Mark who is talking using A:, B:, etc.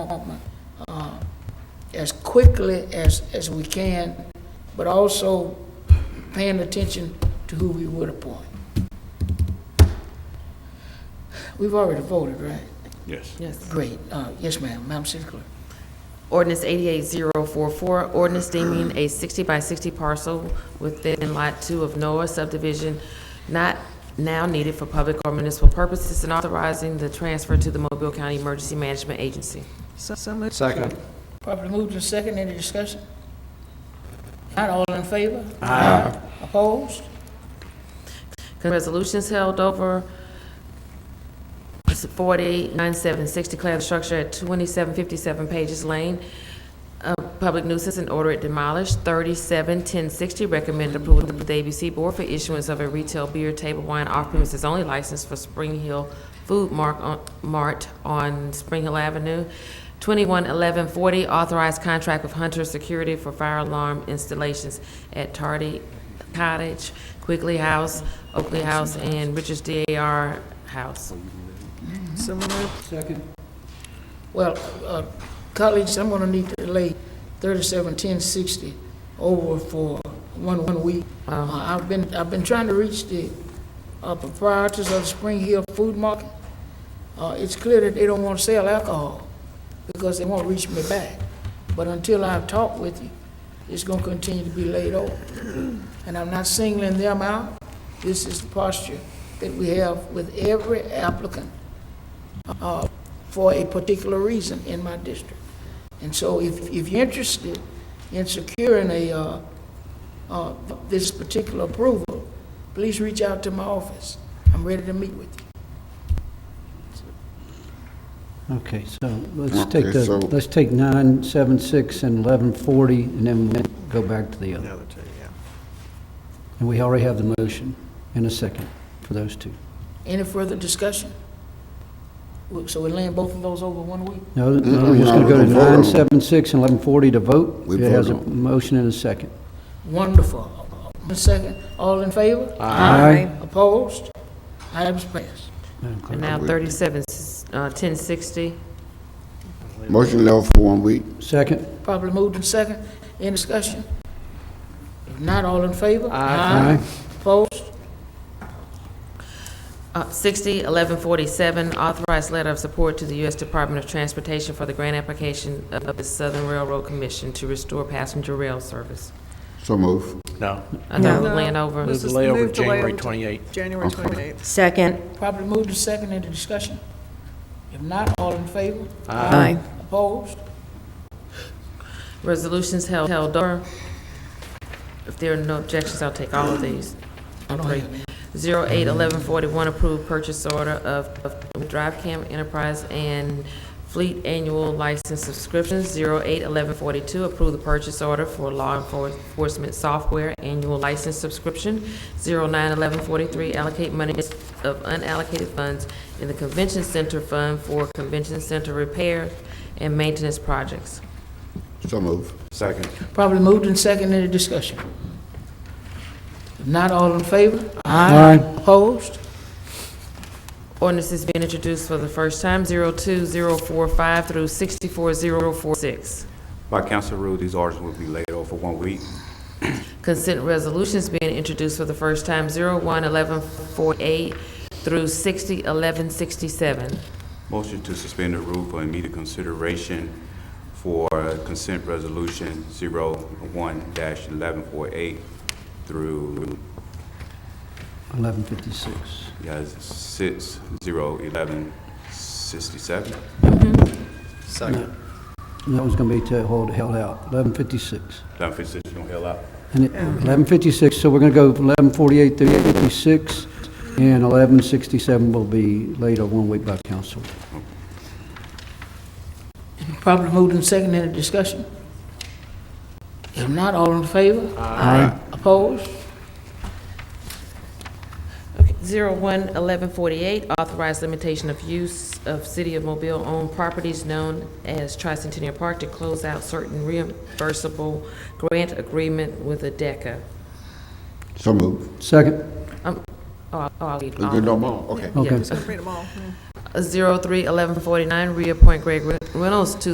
A: department uh, as quickly as, as we can, but also paying attention to who we would appoint. We've already voted, right?
B: Yes.
C: Yes.
A: Great. Uh, Yes, ma'am. Madam City Clerk.
C: Ordinance 88044, ordinance deeming a 60 by 60 parcel within Lot 2 of Noah subdivision not now needed for public or municipal purposes and authorizing the transfer to the Mobile County Emergency Management Agency.
D: So, so moved.
E: Second.
A: Properly moved and second. Any discussion? Not all in favor? Aye. Opposed?
C: Resolutions held over 489760, declare the structure at 2757 Pages Lane, a public nuisance and order it demolished. 371060, recommend approval of the ABC Board for issuance of a retail beer table wine off-premises only license for Spring Hill Food Mark on- Mart on Spring Hill Avenue. 211140, authorized contract with Hunter Security for fire alarm installations at Tardy Cottage, Quigley House, Oakley House, and Richards DAR House.
D: So moved.
A: Well, uh, colleagues, I'm gonna need to delay thirty-seven ten sixty over for one, one week. Uh,
C: Um,
A: I've been, I've been trying to reach the uh, proprietors of the Spring Hill Food Market. Uh, It's clear that they don't want to sell alcohol because they won't reach me back. But until I've talked with you, it's gonna continue to be laid over. And I'm not singling them out. This is the posture that we have with every applicant uh, for a particular reason in my district. And so if, if you're interested in securing a, uh, uh, this particular approval, please reach out to my office. I'm ready to meet with you.
F: Okay, so let's take the,
B: so-
F: let's take nine, seven, six, and eleven forty, and then we'll go back to the other.
D: Another two, yeah.
F: And we already have the motion and a second for those two.
A: Any further discussion? Well, So we're laying both of those over one week?
F: No, no,
B: Mm-mm,
F: we're just
B: no,
F: gonna go
B: we're
F: to
B: gonna vote on
F: nine,
B: them.
F: seven, six, and eleven forty to vote.
B: We
F: It has a
B: vote on
F: motion and a second.
A: Wonderful. Ms. Second, all in favor?
F: Aye.
A: Opposed? Items passed.
F: Madam Clerk.
C: And now 37, uh, 1060,
B: Motion level for one week.
F: Second?
A: Probably moved in second. Any discussion? If not, all in favor?
F: Aye.
A: Opposed?
C: uh, 60, 1147, authorized letter of support to the U.S. Department of Transportation for the grant application of the Southern Railroad Commission to restore passenger rail service.
B: So move.
G: No,
C: Another
D: No.
C: layover.
G: move
D: Let's
G: the
D: just
G: layover
D: move
G: to
D: the
G: January
D: layover to-
G: 28th.
D: January twenty-eighth.
H: Second.
A: Properly moved and second into discussion. If not, all in favor?
H: Aye.
A: Opposed?
C: Resolutions held, held over. If there are no objections, I'll take all of these.
A: I don't have any.
C: Zero eight eleven forty-one, approved purchase order of, of Drive Cam Enterprise and Fleet Annual License Subscriptions. Zero eight eleven forty-two, approved the purchase order for Law Enfor- Enforcement Software Annual License Subscription. Zero nine eleven forty-three, allocate monies of unallocated funds in the Convention Center Fund for Convention Center Repair and Maintenance Projects.
B: So move.
G: Second.
A: Properly moved and second into discussion. If not, all in favor?
F: Aye.
A: Opposed?
C: Ordinance is being introduced for the first time, 02045 through 64046.
I: By council rule, these orders will be laid over one week.
C: Consent resolutions being introduced for the first time, 011148 through 601167.
I: Motion to suspend the rule for immediate consideration for consent resolution 01-1148 through
F: Eleven fifty-six.
I: yes, 601167.
E: Second.
F: That was gonna be to hold, held out, eleven fifty-six.
I: Done for decision, held up.
F: And it, eleven fifty-six, so we're gonna go eleven forty-eight through fifty-six, and eleven sixty-seven will be later, one week by council.
A: Properly moved and second into discussion. If not, all in favor? Aye. Opposed?
C: 011148, authorized limitation of use of City of Mobile-owned properties known as Tricentennial Park to close out certain reimbursable grant agreement with ADECA.
B: So move.
F: Second?
C: Oh, I'll- I'll read all
B: You
C: of
B: did
C: them.
B: no more? Okay.
F: Okay.
D: Just gonna read them all.
C: 031149, reappoint Greg Re- Reynolds to